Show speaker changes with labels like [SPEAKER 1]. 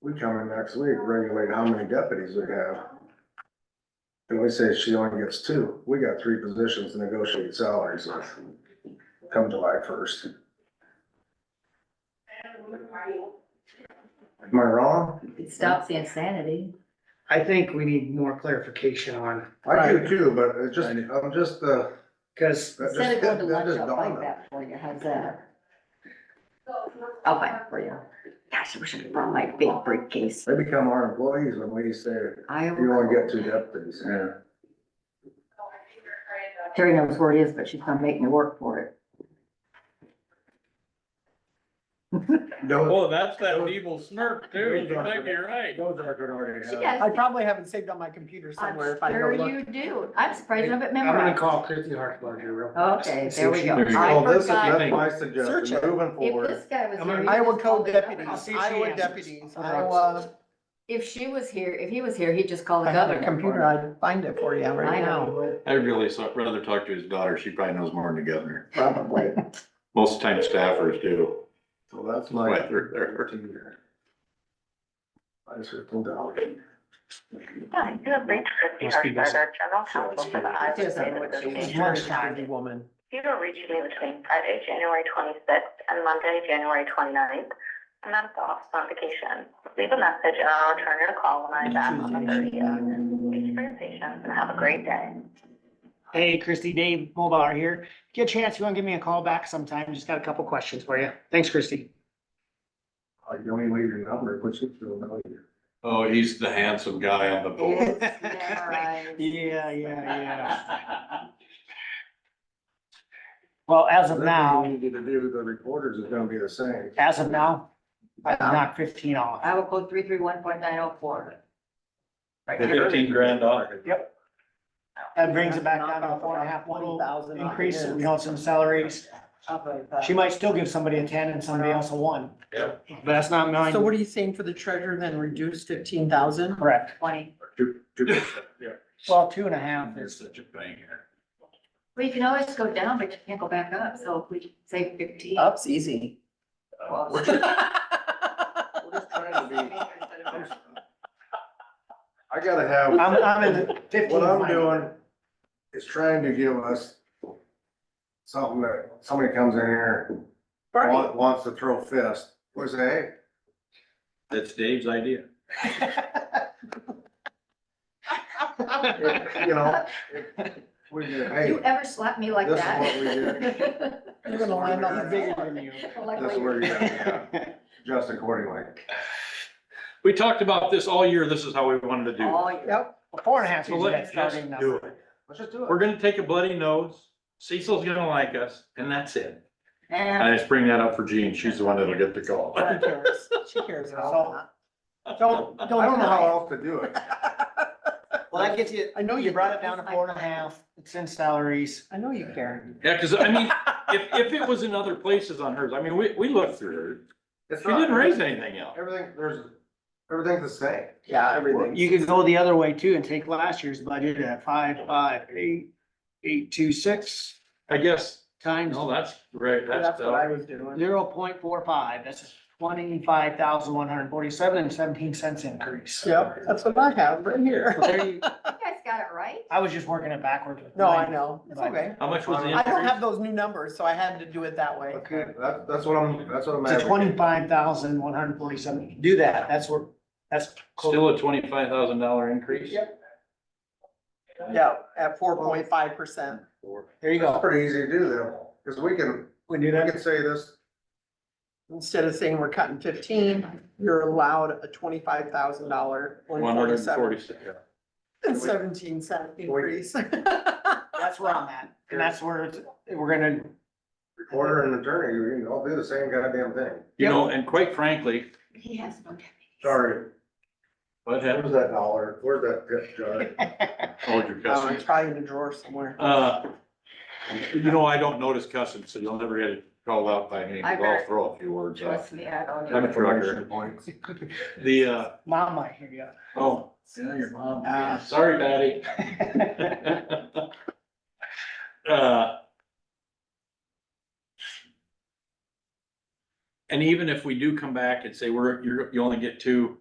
[SPEAKER 1] we come in next week, regulate how many deputies we have. And we say she only gets two, we got three positions to negotiate salaries with, come July first. Am I wrong?
[SPEAKER 2] It stops the insanity.
[SPEAKER 3] I think we need more clarification on,
[SPEAKER 1] I do too, but it just, I'm just, uh,
[SPEAKER 3] because
[SPEAKER 1] that just,
[SPEAKER 2] Instead of going to
[SPEAKER 1] that
[SPEAKER 2] lunch,
[SPEAKER 1] just
[SPEAKER 2] I'll find
[SPEAKER 1] dawned on me.
[SPEAKER 2] that for you, how's that? I'll find it for you. Gosh, I wish I could bring my big briefcase.
[SPEAKER 1] They become our employees when we say,
[SPEAKER 2] I
[SPEAKER 1] you only get two deputies. Yeah.
[SPEAKER 2] Terry knows where it is, but she's gonna make me work for it.
[SPEAKER 1] Those,
[SPEAKER 4] Oh, that's that evil smirk too. You think you're right.
[SPEAKER 1] those are gonna already
[SPEAKER 2] She
[SPEAKER 1] have.
[SPEAKER 2] does.
[SPEAKER 5] I probably have it saved on my computer
[SPEAKER 2] I'm
[SPEAKER 5] somewhere if I
[SPEAKER 2] sure
[SPEAKER 5] go look.
[SPEAKER 2] you do. I'm surprised you have it
[SPEAKER 3] I'm gonna
[SPEAKER 2] memorized.
[SPEAKER 3] call Christie Hartsbarger real. fast
[SPEAKER 2] Okay,
[SPEAKER 3] and see
[SPEAKER 2] there
[SPEAKER 3] if
[SPEAKER 2] we
[SPEAKER 3] she-
[SPEAKER 2] go.
[SPEAKER 4] There you
[SPEAKER 2] I
[SPEAKER 1] Well, this is,
[SPEAKER 2] forgot.
[SPEAKER 1] that's my
[SPEAKER 5] Search
[SPEAKER 1] suggestion,
[SPEAKER 5] it.
[SPEAKER 1] moving
[SPEAKER 2] If
[SPEAKER 1] forward.
[SPEAKER 2] this guy was
[SPEAKER 3] I'm gonna-
[SPEAKER 2] here. he'd
[SPEAKER 5] Iowa
[SPEAKER 2] just call
[SPEAKER 5] code
[SPEAKER 2] the governor.
[SPEAKER 3] I'll
[SPEAKER 5] deputies,
[SPEAKER 3] see if she
[SPEAKER 5] Iowa
[SPEAKER 3] answers.
[SPEAKER 5] deputies,
[SPEAKER 3] Okay.
[SPEAKER 5] Iowa,
[SPEAKER 2] If she was here, if he was here, he'd just call the
[SPEAKER 5] I have a
[SPEAKER 2] governor.
[SPEAKER 5] computer, I'd find it for you
[SPEAKER 2] I
[SPEAKER 5] right
[SPEAKER 2] know, he
[SPEAKER 5] now.
[SPEAKER 2] would,
[SPEAKER 6] I'd really so- rather talk to his daughter. She probably knows more than the governor.
[SPEAKER 2] probably.
[SPEAKER 6] Most of the time staffers do.
[SPEAKER 1] So that's my.
[SPEAKER 6] Right, they're- they're-
[SPEAKER 1] Minus fifteen dollars.
[SPEAKER 7] Yeah, you have reached Christie
[SPEAKER 3] Must be
[SPEAKER 7] Hartsbarger, General Counsel for the Iowa
[SPEAKER 2] Doesn't
[SPEAKER 7] State
[SPEAKER 2] look
[SPEAKER 7] Association
[SPEAKER 2] It's
[SPEAKER 5] It's
[SPEAKER 7] of
[SPEAKER 2] more
[SPEAKER 5] more
[SPEAKER 7] Counties.
[SPEAKER 5] security woman.
[SPEAKER 7] You will reach me between Friday, January twenty-sixth and Monday, January 29th, and I'm off on vacation. Leave a message and I'll return your call when I'm back on the thirtieth. Thank you for your patience and have a great day.
[SPEAKER 3] Hey, Christie, Dave Mulbauer here. If you Get a chance, you wanna give me a call back sometime? Just got a couple questions for you. Thanks, Christie.
[SPEAKER 1] I don't even leave your number, which is still no here.
[SPEAKER 6] Oh, he's the handsome guy on the board.
[SPEAKER 2] It's memorized.
[SPEAKER 3] Yeah, yeah, yeah. Well, as of
[SPEAKER 1] We
[SPEAKER 3] now,
[SPEAKER 1] need to do, the reporters is gonna be the same.
[SPEAKER 3] as of now, I knocked fifteen off.
[SPEAKER 2] Iowa code three three one point nine oh four. Right here.
[SPEAKER 6] Fifteen grand dollar.
[SPEAKER 3] Yep. That brings it back down to a four and a half
[SPEAKER 5] Twenty
[SPEAKER 3] little
[SPEAKER 5] thousand on
[SPEAKER 3] increase,
[SPEAKER 5] his.
[SPEAKER 3] you know, some salaries.
[SPEAKER 2] Up uh, like that.
[SPEAKER 3] She might still give somebody a ten and somebody else a one.
[SPEAKER 6] Yeah.
[SPEAKER 3] But that's not mine.
[SPEAKER 5] So what are you saying for the treasurer then reduce fifteen thousand?
[SPEAKER 3] Correct.
[SPEAKER 2] Twenty.
[SPEAKER 1] Two, two percent, yeah.
[SPEAKER 3] Well, two and a half
[SPEAKER 6] You're
[SPEAKER 3] is,
[SPEAKER 6] such a banger.
[SPEAKER 2] Well, you can always go down, but you can't go back up, so if we say fifteen.
[SPEAKER 5] Up's easy.
[SPEAKER 2] well,
[SPEAKER 1] We're just- we're just trying to be- I'm- I gotta
[SPEAKER 3] I'm,
[SPEAKER 1] have,
[SPEAKER 3] I'm in the fifteen.
[SPEAKER 1] what I'm
[SPEAKER 3] line.
[SPEAKER 1] doing is trying to give us something that, somebody comes in here, and wa- wants to throw fist, we say, hey,
[SPEAKER 6] That's Dave's idea.
[SPEAKER 1] you know, we do, hey,
[SPEAKER 2] You ever slap me like
[SPEAKER 1] This is
[SPEAKER 2] that?
[SPEAKER 1] what we did.
[SPEAKER 5] You're gonna land on the bigger than you.
[SPEAKER 2] Like
[SPEAKER 1] That's
[SPEAKER 2] we-
[SPEAKER 1] where you're at, yeah. just accordingly.
[SPEAKER 6] We talked about this all year. This is how we wanted to do.
[SPEAKER 2] Oh, yeah.
[SPEAKER 3] Yep, four and a half
[SPEAKER 6] So
[SPEAKER 3] is that
[SPEAKER 6] let's just
[SPEAKER 3] starting
[SPEAKER 6] do
[SPEAKER 3] number.
[SPEAKER 6] it.
[SPEAKER 1] Let's just do
[SPEAKER 6] We're gonna take a bloody nose. Cecil's gonna like us and that's it.
[SPEAKER 2] And
[SPEAKER 6] I just bring that up for Jean. She's the one that'll get the call.
[SPEAKER 5] She cares. She cares about
[SPEAKER 3] Don't,
[SPEAKER 1] I don't
[SPEAKER 3] don't
[SPEAKER 1] know how
[SPEAKER 3] deny it.
[SPEAKER 1] else to do it.
[SPEAKER 3] Well, that gets you, I know you brought it down to four and a half, it's in salaries.
[SPEAKER 5] that. I know you care.
[SPEAKER 6] Yeah, cause I mean, if, if it was in other places on hers, I mean, we, we looked through her.
[SPEAKER 1] It's
[SPEAKER 6] She
[SPEAKER 1] not-
[SPEAKER 6] didn't raise anything else.
[SPEAKER 1] Everything, there's, everything's the same.
[SPEAKER 5] Yeah, everything.
[SPEAKER 3] You could go the other way too and take last year's budget at five, five, eight, eight, two, six
[SPEAKER 6] I guess,
[SPEAKER 3] times
[SPEAKER 6] no, that's right, that's,
[SPEAKER 5] That's what I
[SPEAKER 6] uh,
[SPEAKER 5] was doing.
[SPEAKER 3] zero point four five, that's twenty-five thousand one hundred forty-seven and seventeen cents increase.
[SPEAKER 5] Yep, that's what I have right here.
[SPEAKER 3] Well, there you-
[SPEAKER 2] you guys got it right?
[SPEAKER 3] I was just working it backwards. with
[SPEAKER 5] No, I
[SPEAKER 3] mine.
[SPEAKER 5] know. It's okay.
[SPEAKER 6] how much was the
[SPEAKER 5] I don't have
[SPEAKER 6] increase?
[SPEAKER 5] those new numbers, so I had to do it that way.
[SPEAKER 3] Okay.
[SPEAKER 1] That, that's what I'm, that's what I'm.
[SPEAKER 3] It's a
[SPEAKER 1] advocating.
[SPEAKER 3] twenty-five thousand one hundred forty-seven, do that, that's where, that's. close.
[SPEAKER 6] Still a twenty-five thousand dollar increase?
[SPEAKER 5] Yep. Yeah, at four point five percent.
[SPEAKER 3] There
[SPEAKER 1] It's
[SPEAKER 3] you go,
[SPEAKER 1] pretty easy to do though, because we can,
[SPEAKER 3] we do
[SPEAKER 1] we
[SPEAKER 3] that,
[SPEAKER 1] can say this,
[SPEAKER 5] Instead of saying we're cutting fifteen, you're allowed a twenty-five thousand dollar,
[SPEAKER 6] One
[SPEAKER 5] one
[SPEAKER 6] hundred and
[SPEAKER 5] forty-seven
[SPEAKER 6] forty-six.
[SPEAKER 5] and seventeen cent increase.
[SPEAKER 3] that's where I'm at, and that's where it's, we're gonna,
[SPEAKER 1] recorder and attorney, you can all do the same goddamn thing.
[SPEAKER 6] You know, and quite frankly,
[SPEAKER 2] He has no deputies.
[SPEAKER 1] Sorry,
[SPEAKER 6] what happened?
[SPEAKER 1] where's that dollar? Where's that tip jar?
[SPEAKER 6] Hold your
[SPEAKER 5] Oh,
[SPEAKER 6] cussing.
[SPEAKER 5] it's probably in the drawer somewhere.
[SPEAKER 6] Uh, you know, I don't notice cussing, so you'll never get it called out by me,
[SPEAKER 2] I
[SPEAKER 6] 'cause I'll throw a few words out.
[SPEAKER 2] Trust me, I don't.
[SPEAKER 6] I'm a
[SPEAKER 2] know.
[SPEAKER 6] trucker.
[SPEAKER 1] Points.
[SPEAKER 6] The, uh,
[SPEAKER 3] mom might hear you.
[SPEAKER 6] oh. Yeah, your mom.
[SPEAKER 3] Ah.
[SPEAKER 6] Sorry, Patty. Uh, And even if we do come back and say, we're, you're, you only get two,